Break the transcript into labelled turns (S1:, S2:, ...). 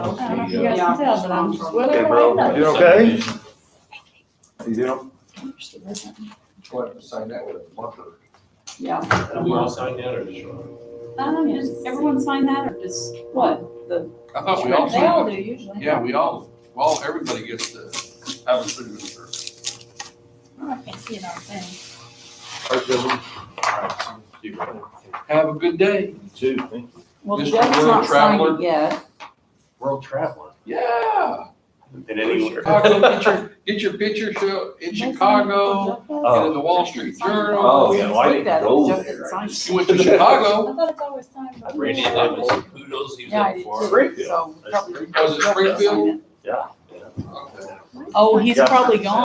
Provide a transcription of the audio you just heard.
S1: off
S2: I don't know if you
S1: the,
S2: guys
S1: uh,
S2: can tell, but I'm just whether or
S1: Pembroke.
S2: not.
S3: You okay?
S1: subdivision.
S3: You know,
S4: What, sign that with a marker?
S2: Yeah,
S1: Did we all sign that or just? one?
S2: um, does everyone sign that or just what?
S5: I thought we all
S2: They all
S5: signed
S2: do
S5: it.
S2: usually.
S5: Yeah, we all, well, everybody gets to have a signature.
S2: Oh, I can't see it on the thing.
S3: I feel them
S5: Have a good day.
S3: too, thank you.
S2: Well,
S5: Mr.
S2: Doug's not
S5: World
S2: signed
S5: Traveler.
S2: it yet.
S4: World traveler.
S5: Yeah.
S1: And anywhere.
S5: Chicago, get your, get your picture show in Chicago, and in the Wall Street Journal.
S3: Oh, yeah, well, I
S2: Looked
S3: didn't
S2: at it,
S3: go
S2: Doug
S3: there.
S2: signed it.
S5: You went to Chicago.
S2: I thought it's always signed. by-
S1: Randy Levis, who knows he was
S2: Yeah, I
S1: up
S2: did
S1: for?
S2: too,
S3: Springfield.
S2: so. probably-
S5: Was it Oh, Springfield?
S3: Yeah.
S5: Okay.
S2: Oh, he's
S3: Yeah.
S2: probably gone.